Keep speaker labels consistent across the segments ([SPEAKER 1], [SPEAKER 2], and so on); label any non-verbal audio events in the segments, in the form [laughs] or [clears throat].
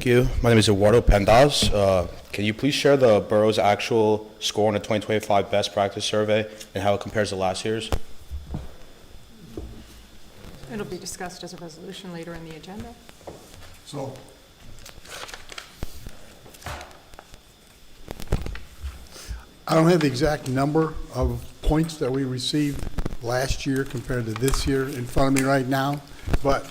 [SPEAKER 1] you. My name is Eduardo Pendas. Uh, Can you please share the borough's actual score on the 2025 Best Practice Survey and how it compares to last year's?
[SPEAKER 2] It'll be discussed as a resolution later in the agenda.
[SPEAKER 3] So, I don't have the exact number of points that we received last year compared to this year in front of me right now, but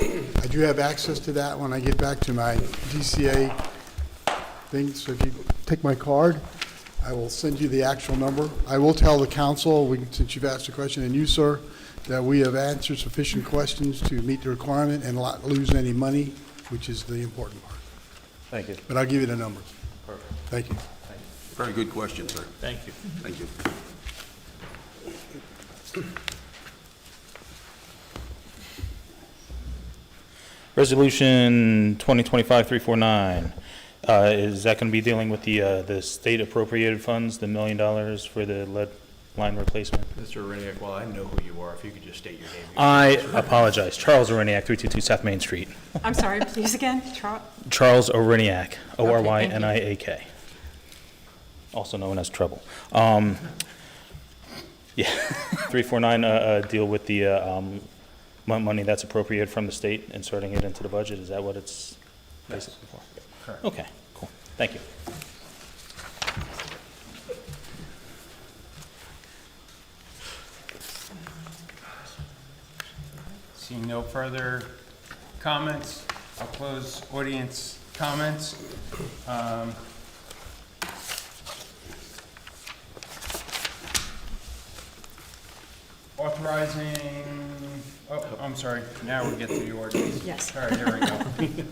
[SPEAKER 3] I do have access to that when I get back to my DCA thing. So if you take my card, I will send you the actual number. I will tell the council, we- since you've asked the question, and you, sir, that we have answered sufficient questions to meet the requirement and not lose any money, which is the important part.
[SPEAKER 1] Thank you.
[SPEAKER 3] But I'll give you the numbers. Thank you.
[SPEAKER 4] Very good question, sir.
[SPEAKER 5] Thank you.
[SPEAKER 4] Thank you.
[SPEAKER 5] Resolution 2025-349, Uh, is that going to be dealing with the, uh, the state appropriated funds, the million dollars for the lead line replacement?
[SPEAKER 6] Mr. Reniak, while I know who you are, if you could just state your name.
[SPEAKER 5] I apologize, Charles Oriniak, 322 South Main Street.
[SPEAKER 2] I'm sorry, please again, Trot?
[SPEAKER 5] Charles Oriniak,
[SPEAKER 2] Okay, thank you.
[SPEAKER 5] O-R-Y-N-I-A-K, also known as Trouble. Um, Yeah, [laughs] 349, uh, uh, deal with the uh, um, mon- money that's appropriated from the state, inserting it into the budget, is that what it's basically for?
[SPEAKER 6] Correct.
[SPEAKER 5] Okay, cool, thank you.
[SPEAKER 7] Seeing no further comments, I'll close audience comments. Um, Authorizing, oh, I'm sorry, now we get to the ordinance.
[SPEAKER 2] Yes.
[SPEAKER 7] All right, there we go.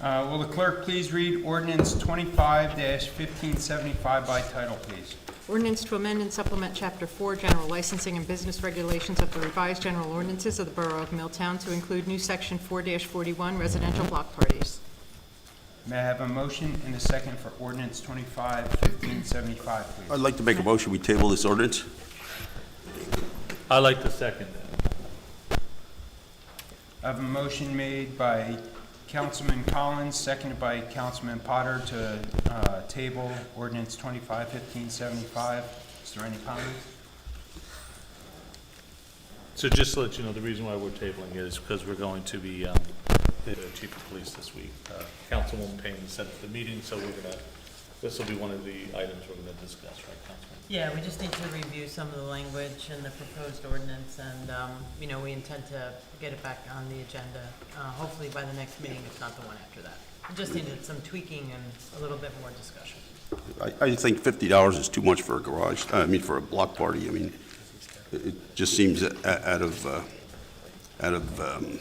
[SPEAKER 7] Uh, Will the clerk please read ordinance twenty-five fifteen seventy-five by title, please?
[SPEAKER 2] Ordinance to amend and supplement Chapter 4, General Licensing and Business Regulations of the revised general ordinances of the Borough of Milltown to include new Section 4-41 Residential Block Parties.
[SPEAKER 7] May I have a motion and a second for ordinance twenty-five fifteen seventy-five, please?
[SPEAKER 4] I'd like to make a motion, we table this ordinance.
[SPEAKER 5] I like the second.
[SPEAKER 7] I have a motion made by Councilman Collins, seconded by Councilman Potter to uh, table ordinance 251575. Is there any comments?
[SPEAKER 8] So just to let you know, the reason why we're tabling is because we're going to be, um, the chief of police this week, uh, Councilwoman Payne set up the meeting, so we're gonna, this will be one of the items we're gonna discuss, right, Councilman?
[SPEAKER 9] Yeah, we just need to review some of the language in the proposed ordinance, and, um, you know, we intend to get it back on the agenda, uh, hopefully by the next meeting, if not the one after that. We just needed some tweaking and a little bit more discussion.
[SPEAKER 4] I, I think fifty dollars is too much for a garage, I mean, for a block party, I mean, it- it just seems a- a- out of, uh, out of, um,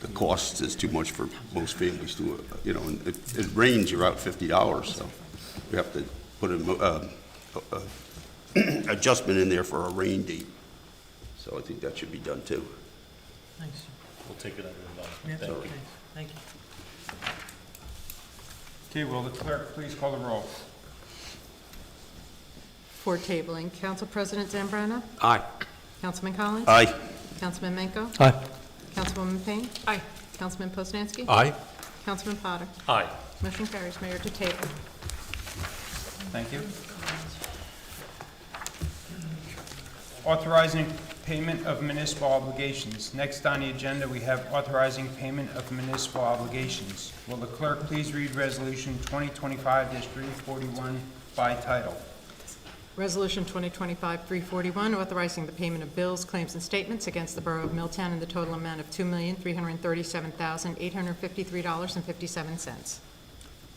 [SPEAKER 4] the cost is too much for most families to, uh, you know, and if it rains, you're out fifty dollars, so we have to put a, mo- um, a- a [clears throat] adjustment in there for a rain date, so I think that should be done too.
[SPEAKER 9] Thanks.
[SPEAKER 8] We'll take it under advisement.
[SPEAKER 9] Yep,
[SPEAKER 8] Thank you.
[SPEAKER 9] thanks. Thank you.
[SPEAKER 7] Okay, will the clerk please call the roll?
[SPEAKER 2] For tabling, Council President Zambrana?
[SPEAKER 4] Aye.
[SPEAKER 2] Councilman Collins?
[SPEAKER 4] Aye.
[SPEAKER 2] Councilman Menko?
[SPEAKER 5] Aye.
[SPEAKER 2] Councilwoman Payne? Aye. Councilman Poznanski?
[SPEAKER 4] Aye.
[SPEAKER 2] Councilman Potter?
[SPEAKER 8] Aye.
[SPEAKER 2] Motion carries, Mayor, to table.
[SPEAKER 7] Thank you. Authorizing payment of municipal obligations. Next on the agenda, we have authorizing payment of municipal obligations. Will the clerk please read resolution 2025-341 by title?
[SPEAKER 2] Resolution 2025-341, authorizing the payment of bills, claims, and statements against the Borough of Milltown in the total amount of $2,337,853.57.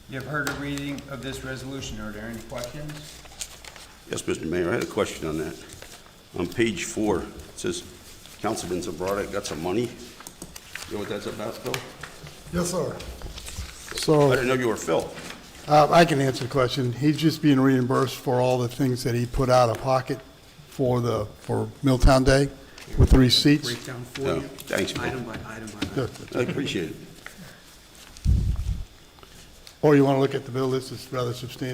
[SPEAKER 7] You have heard a reading of this resolution. Are there any questions?
[SPEAKER 4] Yes, Mr. Mayor, I had a question on that. On page four, it says Councilman Zabrata got some money. You know what that's about, Phil?
[SPEAKER 3] Yes, sir.
[SPEAKER 4] I
[SPEAKER 3] So
[SPEAKER 4] didn't know you were Phil.
[SPEAKER 3] uh, I can answer the question. He's just being reimbursed for all the things that he put out of pocket for the, for Milltown Day with the receipts. Oh,
[SPEAKER 10] breakdown for
[SPEAKER 4] No,
[SPEAKER 10] you,
[SPEAKER 4] thanks,
[SPEAKER 10] item
[SPEAKER 4] Phil.
[SPEAKER 10] by item by item.
[SPEAKER 3] Yeah.
[SPEAKER 4] I appreciate it.
[SPEAKER 3] Or you want to look at the bill, this is rather substantial.